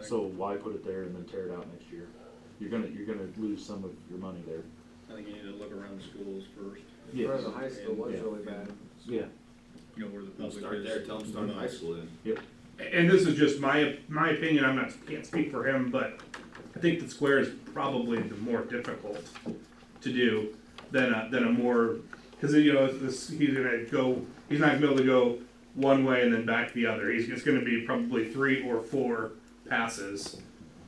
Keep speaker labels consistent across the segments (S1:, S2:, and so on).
S1: So why put it there and then tear it out next year? You're gonna, you're gonna lose some of your money there.
S2: I think you need to look around the schools first,
S1: Yes.
S3: Whereas the high school was
S1: Yeah.
S3: really bad.
S1: Yeah.
S2: you know, where the
S4: They'll
S2: public is.
S4: start there, tell them to start in high school then.
S5: and this is just my my opinion. I'm not can't speak for him, but I think the square is probably the more difficult to do than a, than a more because you know this he's gonna go he's not gonna be able to go one way and then back the other. He's it's gonna be probably three or four passes,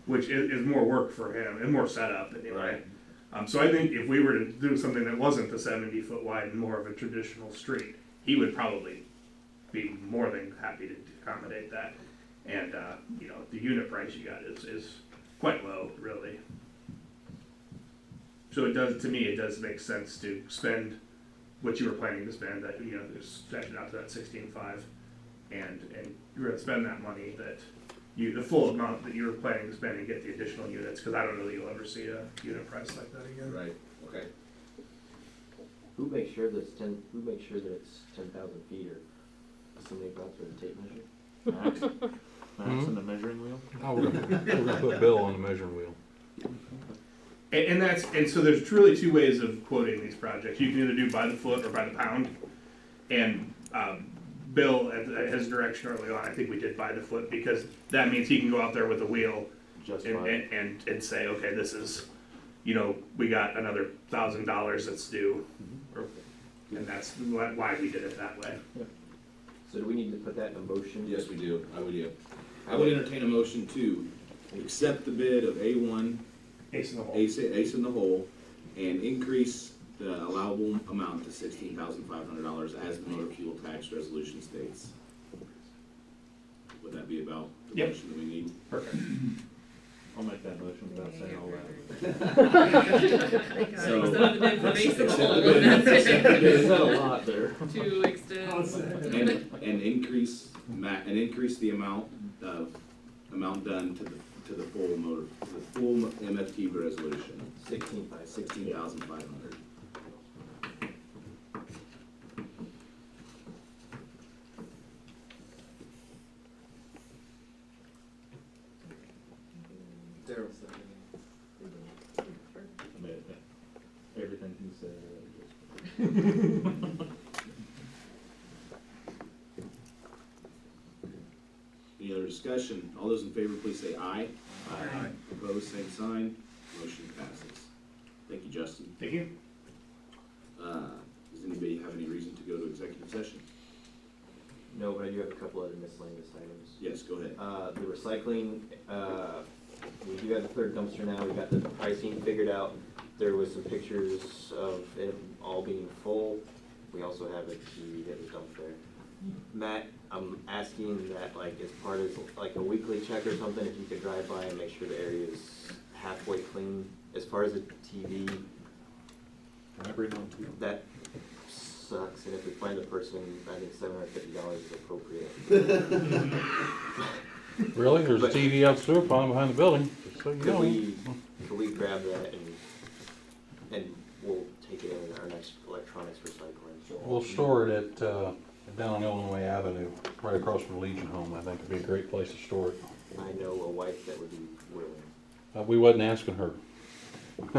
S5: which is, is more work for him and more setup anyway.
S4: Right.
S5: Um, so I think if we were to do something that wasn't the 70 foot wide and more of a traditional street, he would probably be more than happy to accommodate that. And, uh, you know, the unit price you got is, is quite low, really. So it does, to me, it does make sense to spend what you were planning to spend, that, you know, just stretch it out to that sixteen-five. And, and you're gonna spend that money that you, the full amount that you were planning to spend and get the additional units, cause I don't know that you'll ever see a unit price like that again.
S4: Right, okay.
S3: Who makes sure that it's ten, who makes sure that it's ten thousand feet or somebody brought through the tape measure?
S1: Max, Max and the measuring wheel?
S6: Oh, we're gonna, we're gonna put Bill on the measuring wheel.
S5: And, and that's and so there's truly two ways of quoting these projects. You can either do by the foot or by the pound. And um, Bill, at, at his direction early on, I think we did by the foot because that means he can go out there with a wheel
S1: Just
S5: and,
S1: like,
S5: and, and, and say, okay, this is, you know, we got another thousand dollars that's due, or, and that's why why we did it that way.
S3: So do we need to put that in a motion?
S4: Yes, we do, I would do. I would entertain a motion to accept the bid of A one,
S5: Ace in the hole.
S4: Ace, Ace in the hole, and increase the allowable amount to sixteen thousand five hundred dollars as the motor fuel tax resolution states. Would that be about the
S5: Yep.
S4: motion that we need?
S5: Perfect.
S1: I'll make that motion without saying all that.
S4: So-
S7: Some of the bid for base of all
S4: Accept
S7: that's it.
S3: There's not a lot there.
S7: To extend.
S4: And, and increase ma, and increase the amount of, amount done to the, to the full motor, to the full MFT resolution,
S3: Sixteen by sixteen.
S4: sixteen thousand five hundred.
S3: Daryl's second.
S1: I mean, Everything he said. I just-
S4: Any other discussion? All those in favor, please say aye.
S7: Aye.
S4: Opposed, same sign. Motion passes. Thank you, Justin.
S5: Thank you.
S4: Uh, does anybody have any reason to go to executive session?
S3: No, but I do have a couple other miscellaneous items.
S4: Yes, go ahead.
S3: Uh, the recycling, uh, we do have the third dumpster now, we got the pricing figured out. There was some pictures of it all being full. We also have a key that was dumped there. Matt, I'm asking that like as part of like a weekly check or something, if you could drive by and make sure the area is halfway clean. As far as the TV, that sucks, and if we find the person, I think seven hundred fifty dollars is appropriate.
S6: Really? There's a
S3: But-
S6: TV out sewer pond behind the building, just so you
S3: Could
S6: know.
S3: we, could we grab that and, and we'll take it in our next electronics recycling?
S6: We'll store it at, uh, down on Illinois Avenue, right across from Legion Home. I think it'd be a great place to store it.
S3: I know a wife that would be willing.
S6: Uh, we wasn't asking her.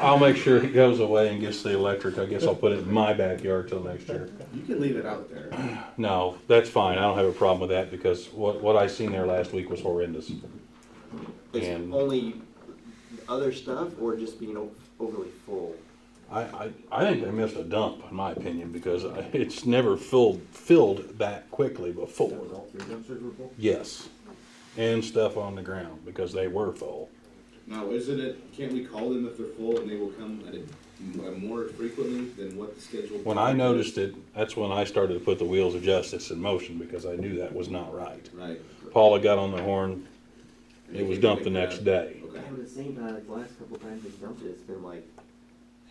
S6: I'll make sure it goes away and gets the electric. I guess I'll put it in my backyard till next year.
S4: You can leave it out there.
S6: No, that's fine. I don't have a problem with that because what, what I seen there last week was horrendous.
S3: Is
S6: And-
S3: only other stuff or just being o- overly full?
S6: I, I, I think they missed a dump, in my opinion, because I- it's never filled, filled that quickly before.
S1: all three dumpsters were full?
S6: Yes. And stuff on the ground, because they were full.
S4: Now, isn't it, can't we call them if they're full and they will come at a, more frequently than what the schedule?
S6: When I noticed it, that's when I started to put the wheels of justice in motion, because I knew that was not right.
S4: Right.
S6: Paula got on the horn, it was dumped the next day.
S4: Okay,
S3: the same, uh, the last couple times we dumped it, it's been like,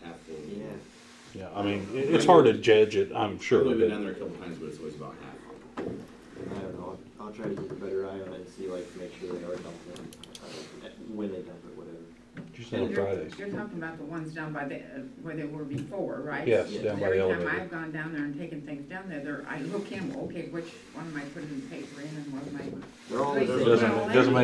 S4: half full.
S6: Yeah, I mean, it, it's hard to judge it, I'm sure,
S4: I've been down
S6: but
S4: there a couple times, but it's always about half.
S3: I don't know, I'll I'll try to keep a better eye on it and see like, make sure they are dumping, uh, when they dump it, whatever.
S6: just on Fridays.
S8: You're talking about the ones down by the, uh, where they were before, right?
S6: Yes,
S3: Yeah.
S6: down by
S8: Every
S6: the
S8: time
S6: elevator.
S8: I've gone down there and taken things down there, there, I look in, okay, which one am I putting the paper in and what am I?
S3: They're all the
S8: Like,
S3: same.
S6: Oh, Doesn't, doesn't make